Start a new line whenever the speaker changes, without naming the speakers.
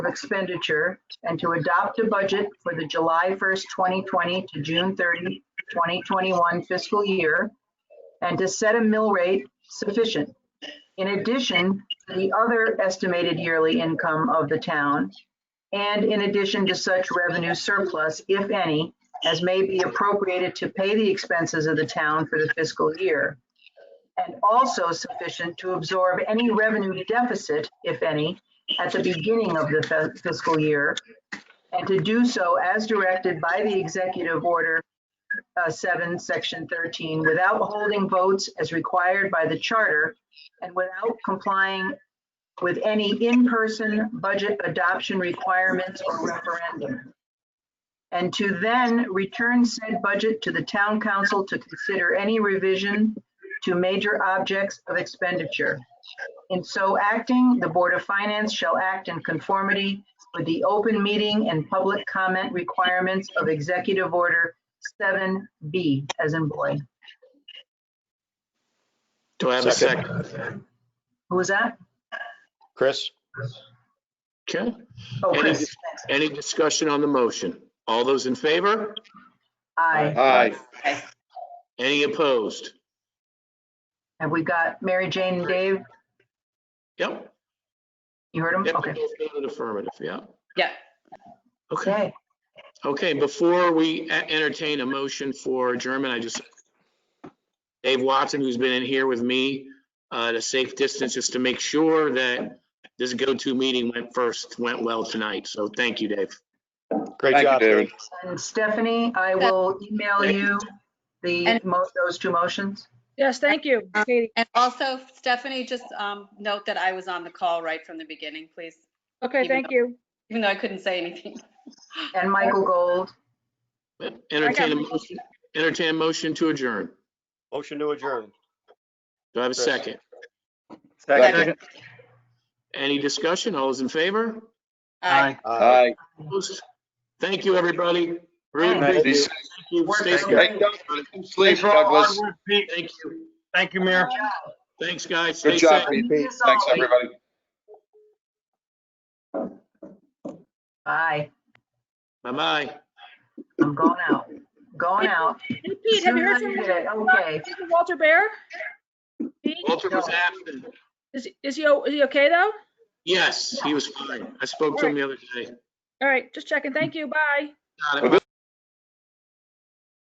expenditure and to adopt a budget for the July 1st, 2020 to June 30, 2021 fiscal year, and to set a mill rate sufficient. In addition, to the other estimated yearly income of the town, and in addition to such revenue surplus, if any, as may be appropriated to pay the expenses of the town for the fiscal year, and also sufficient to absorb any revenue deficit, if any, at the beginning of the fi- fiscal year, and to do so as directed by the Executive Order uh, 7, Section 13, without holding votes as required by the Charter and without complying with any in-person budget adoption requirements or referendum. And to then return said budget to the Town Council to consider any revision to major objects of expenditure. In so acting, the Board of Finance shall act in conformity with the open meeting and public comment requirements of Executive Order 7B, as in boy.
Do I have a second?
Who was that?
Chris?
Okay.
Oh,
Any-
Chris. Thanks.
Any discussion on the motion? All those in favor?
Aye.
Aye.
Any opposed?
Have we got Mary Jane and Dave?
Yep.
You heard them?
Yep,
Okay.
both voted Affirmative, yeah.
Yeah.
Okay,
Okay.
okay, before we e- entertain a motion for adjournment, I just, Dave Watson, who's been in here with me uh, at a safe distance, just to make sure that this go-to meeting went first, went well tonight. So thank you, Dave.
Great
Thank you,
job,
David.
Dave.
And Stephanie, I will email you the,
And-
mo- those two motions.
Yes, thank you, Katie.
And also, Stephanie, just um, note that I was on the call right from the beginning, please,
Okay,
Even
thank you.
even though I couldn't say anything.
And Michael Gold.
Entertain a motion, entertain a motion to adjourn.
Motion to adjourn.
Do I have a
Chris.
second?
Second.
Any discussion? All those in favor?
Aye.
Aye.
Aye.
Opposed? Thank you, everybody. Really
Thanks.
appreciate
Be
it.
safe.
Thank you. Stay
Work.
safe.
Hey, Doug, Sleep,
Thanks for all the hard
Douglas.
work, Pete.
Thank you.
Thank you, Mayor.
Good job.
Thanks, guys. Stay
Good job,
safe.
Pete.
Thanks,
Thanks,
all.
everybody.
Bye.
Bye-bye.
I'm going out. Going out.
Hey, Pete, have you heard from
Okay.
Is it Walter Bear? Pete,
Walter was absent.
is, is he, o- is he okay, though?
Yes, he was fine. I spoke to him the other day.
All right, just checking. Thank you. Bye.
Got it.
Well,